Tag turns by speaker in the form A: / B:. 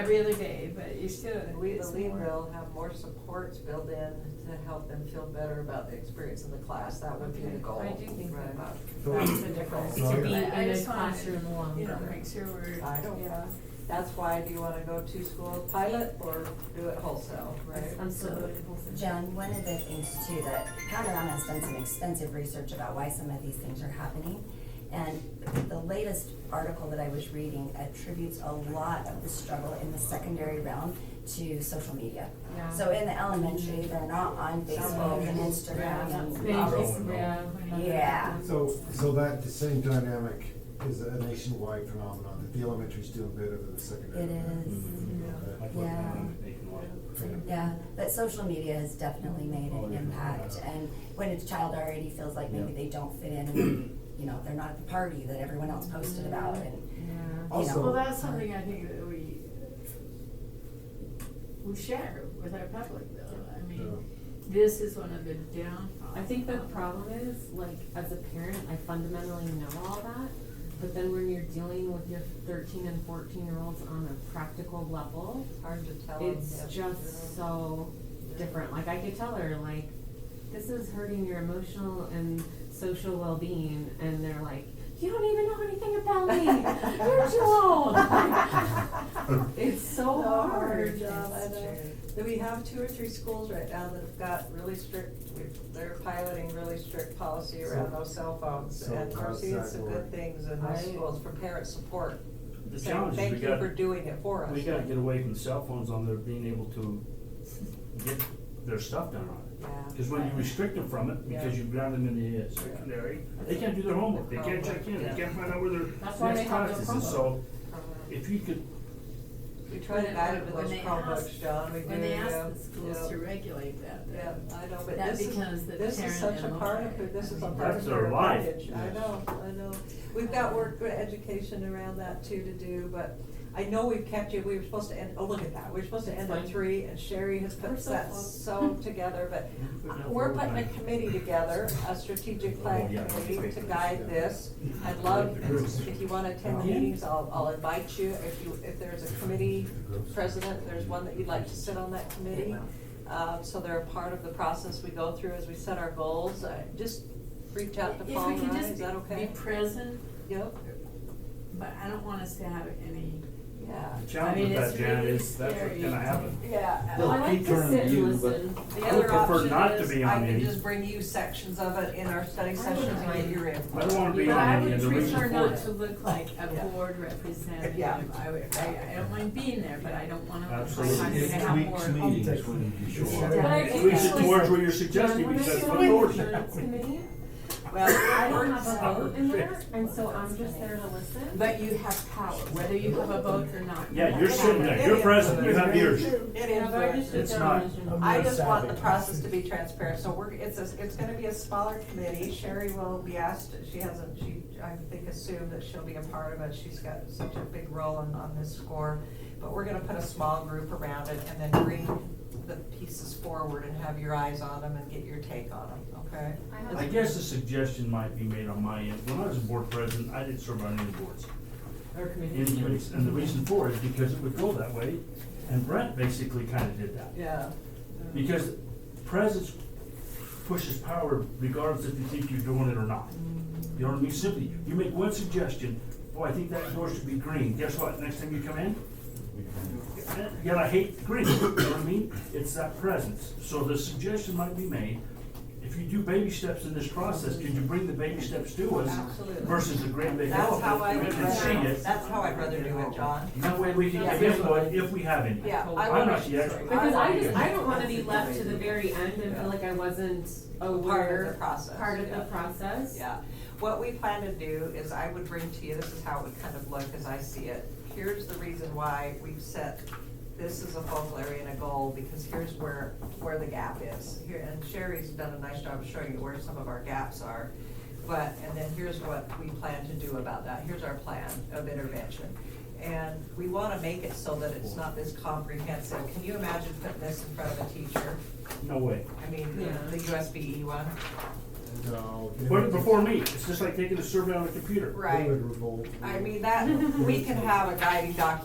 A: every other day, but you still.
B: And we
A: it's
B: believe
A: more.
B: they'll have more supports built in to help them feel better about the experience in the class, that would be the
A: Okay,
B: goal.
A: I do think
B: Right.
A: about-
B: That's
C: the difference,
D: to be
A: But I
C: in a
A: just wanted to,
C: classroom
A: You know,
C: longer.
A: make sure we're,
B: I don't-
A: yeah.
B: That's why, do you wanna go two school pilot or do it wholesale, right?
C: I'm so
E: John, one of the things too, that Panorama has done some extensive research about why some of these things are happening. And the latest article that I was reading attributes a lot of the struggle in the secondary realm to social media.
C: Yeah.
E: So in the elementary, they're not on Facebook and Instagram and all those Yeah.
D: So, so that same dynamic is a nationwide phenomenon, that the elementary's doing better than the secondary. Mm-hmm.
E: It is. Yeah. Yeah, but social media has definitely made an impact, and when a child already feels like maybe they don't fit in, and, you know, they're not at the party that everyone else posted about, and, you
D: Also-
A: Well,
E: know.
A: that's something I think that we, uh, we share with our public though, I mean, this is one of the downfalls.
C: I think the
A: of-
C: problem is, like, as a parent, I fundamentally know all that, but then when you're dealing with your thirteen and fourteen year olds on a practical level,
B: It's hard to tell. 'em
C: it's
B: if-
C: just so different. Like, I could tell her, like, this is hurting your emotional and social well-being, and they're like, you don't even know anything about me, you're too old. Like, It's so
B: So
C: hard.
B: John, I know. Do we have two or three schools right now that have got really strict, they're piloting really strict policy around
D: So-
B: those cell phones?
D: so
B: And we're
D: how's
B: seeing
D: that
B: some
D: work?
B: good things in
C: I-
B: those schools for parent support.
F: The
B: saying,
F: challenge is we
B: Thank you for
F: got,
B: doing it for us.
F: we gotta get away from cell phones on their being able to get their stuff done on it.
B: Yeah.
F: Cause when you restrict them from it, because
B: Yeah.
F: you ground them in the uh, secondary, they can't do their homework, they can't check in, they can't find out where their
C: That's why they
F: next
C: have
F: class
C: their
F: is. And so, if you could,
B: We try to guide them to
A: When
B: those
A: they ask-
B: Chromebooks, John, we do, yeah.
A: When they ask the
B: yeah.
A: schools to regulate that,
B: Yeah,
A: then
B: I know, but
A: That
B: this is,
A: becomes the
B: this is
A: parent
B: such a
A: and the
B: part of,
A: parent.
B: it. this is
A: I
B: a
A: mean,
B: part
F: That's
B: of
F: their
B: our
F: life.
B: package. I
F: Yes.
B: know, I know. We've got work, education around that too to do, but I know we've kept you, we were supposed to end, oh, look at that, we were supposed to end at
C: Fine.
B: three, and Sherry has
C: We're
B: put
C: so
B: that
C: close.
B: so together, but we're putting a committee together, a strategic plan
F: Oh, Yeah.
B: committee to guide this. I'd love, if you wanna attend meetings, I'll, I'll invite you, if you, if there's a committee president, there's one that you'd like to sit on that committee. Um, so they're a part of the process we go through as we set our goals, Uh, just reach out to
A: If we
B: Paul
A: can
B: and I,
A: just
B: is that
A: be
B: okay?
A: present,
B: Yep,
A: but I don't want us to have any,
B: yeah.
F: The
A: I
F: challenge
A: mean,
F: with that,
A: it's
F: Jan,
A: really
F: is that's what's
A: scary.
F: gonna happen.
B: Yeah.
A: Oh,
C: I like to sit and listen.
B: The
F: I would
B: other
F: prefer
B: option
F: not to
B: is
F: be on
B: I can
F: any.
B: just bring you sections of it in our study
C: wouldn't
B: sessions and get
C: mind.
B: your
F: I don't
B: input.
F: wanna be
A: but I
F: on any,
A: would
F: and the reason for
A: prefer
F: it.
A: not to look like a
B: Yeah.
A: board representative.
B: Yeah.
A: I would, I, I don't mind being there, but I don't wanna look like
F: Absolutely.
A: I'm gonna
F: It's
A: have more.
D: meetings when you show
C: But I
F: At
C: think
F: least
C: actually-
F: it's towards what you're suggesting,
C: When I
F: because
C: sit
F: of
C: on the
F: course.
C: insurance committee, I
B: Well,
C: don't
B: we're-
C: have a vote in there, and so I'm just there to listen.
A: But you have power, whether you have a vote or not.
F: Yeah, you're sitting there, you're present, you have ears.
B: it
C: Yeah, but I just
B: influences.
C: sit
F: It's
C: down
F: not-
C: and listen.
B: I just want the process to be transparent, so we're, it's a, it's gonna be a smaller committee, Sherry will be asked, she hasn't, she, I think assumed that she'll be a part of it, she's got such a big role on, on this score. But we're gonna put a small group around it and then bring the pieces forward and have your eyes on them and get your take on them, okay?
F: I guess a suggestion might be made on my end, when I was board president, I didn't serve on any boards.
C: Or
F: And
C: committee.
F: you ex- and the reason for it is because it would go that way, and Brent basically kinda did that.
B: Yeah.
F: Because presence pushes power regardless if you think you're doing it or not. You know what I mean? Simply, you make one suggestion, oh, I think that door should be green, guess what, next time you come in? Yet I hate green, you know what I mean? It's that presence. So the suggestion might be made, if you do baby steps in this process, could you bring the baby steps to us?
B: Absolutely.
F: Versus the great big
B: That's how I
F: elephant, we
B: would
F: can see
B: rather,
F: it.
B: that's how I'd rather do it, John.
F: That way we can give input if we have any.
B: Yeah, I
F: I'm
B: wanna-
F: not the expert.
C: Because I just, I don't wanna be left to the very end and feel like I wasn't
B: Part of
C: aware,
B: the process.
C: part of the
B: yeah.
C: process.
B: Yeah, what we plan to do is I would bring to you, this is how it would kind of look as I see it. Here's the reason why we've set, this is a focal area and a goal, because here's where, where the gap is. Here, and Sherry's done a nice job of showing you where some of our gaps are. But, and then here's what we plan to do about that. Here's our plan of intervention. And we want to make it so that it's not this comprehensive. Can you imagine putting this in front of a teacher?
F: No way.
B: I mean,
C: Yeah.
B: the USBE E one.
D: No.
F: Put it before me, it's just like taking a survey on a computer.
D: uh, They
B: Right.
D: would revolt.
B: I mean, that, we can have a guiding document